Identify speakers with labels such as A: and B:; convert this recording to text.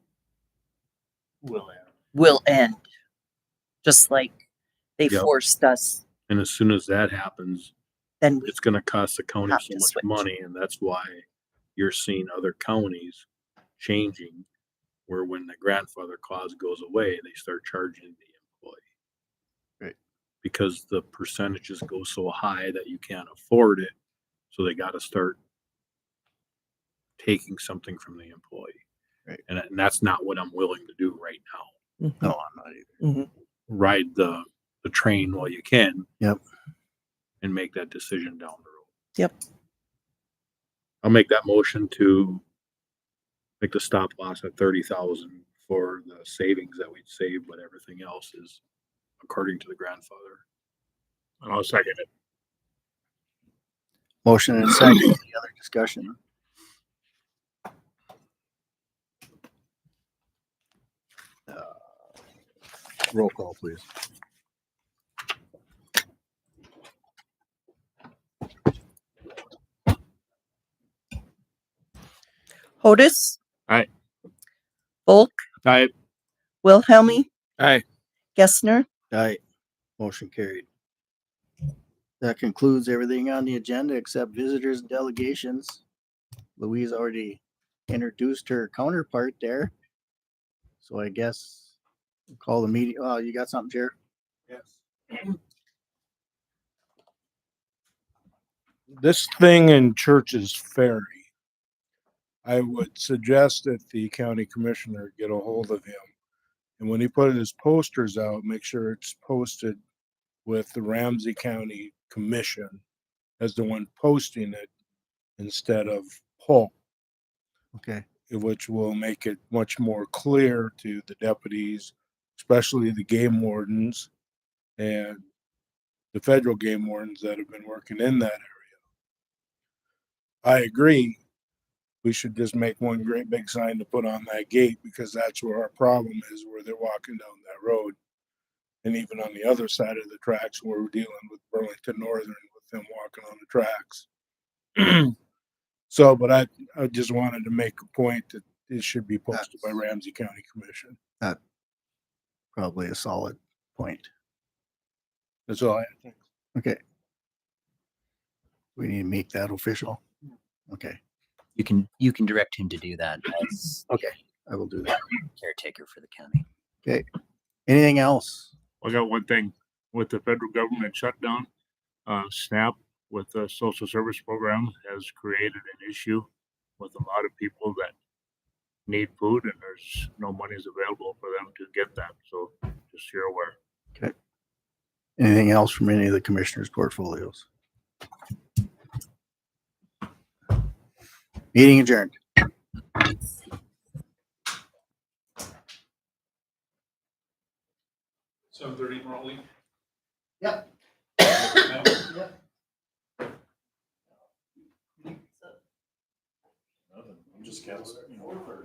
A: will end.
B: will end. Just like they
C: Yep.
B: forced us,
C: And as soon as that happens,
B: then we
C: it's going to cost the county
B: Have
C: so
B: to
C: much
B: switch.
C: money. And that's why you're seeing other counties changing where when the grandfather clause goes away, they start charging the employee.
A: Right.
C: Because the percentages go so high that you can't afford it. So they got to start taking something from the employee.
A: Right.
C: And, and that's not what I'm willing to do right now
A: No, I'm not either.
C: ride the the train while you can.
A: Yep.
C: And make that decision down the road.
B: Yep.
C: I'll make that motion to make the stop loss at thirty thousand for the savings that we'd save, but everything else is according to the grandfather.
D: And I'll second it.
A: Motion and second. Any other discussion? Uh, Roll call, please.
B: Hodis.
D: Aye.
B: Bulk,
D: Aye.
B: Wilhelmie,
D: Aye.
B: Gessner.
A: Aye. Motion carried. That concludes everything on the agenda except visitors and delegations. Louise already introduced her counterpart there. So I guess we'll call the meeting. Oh, you got something, Jer?
D: Yes. This thing in Church's Ferry, I would suggest that the county commissioner get a hold of him. And when he put his posters out, make sure it's posted with the Ramsey County Commission as the one posting it instead of Paul.
A: Okay.
D: which will make it much more clear to the deputies, especially the game wardens and the federal game wardens that have been working in that area. I agree. We should just make one great big sign to put on that gate because that's where our problem is, where they're walking down that road. And even on the other side of the tracks, where we're dealing with Burlington Northern with them walking on the tracks. so, but I, I just wanted to make a point that it should be posted by Ramsey County Commission.
A: Probably a solid point.
D: That's all I think.
A: We need to make that official. Okay,
E: you can you can direct him to do that as
A: I will do that.
E: caretaker for the county.
A: Anything else?
F: I got one thing with the federal government shutdown. Uh, SNAP with the social service program has created an issue with a lot of people that need food and there's no monies available for them to get that. So just so you're aware.
A: Anything else from any of the commissioners' portfolios? Meeting adjourned.
G: Seven thirty tomorrow, Lee?
A: Yep.
G: That work? Nothing. I'm just canceling, you know,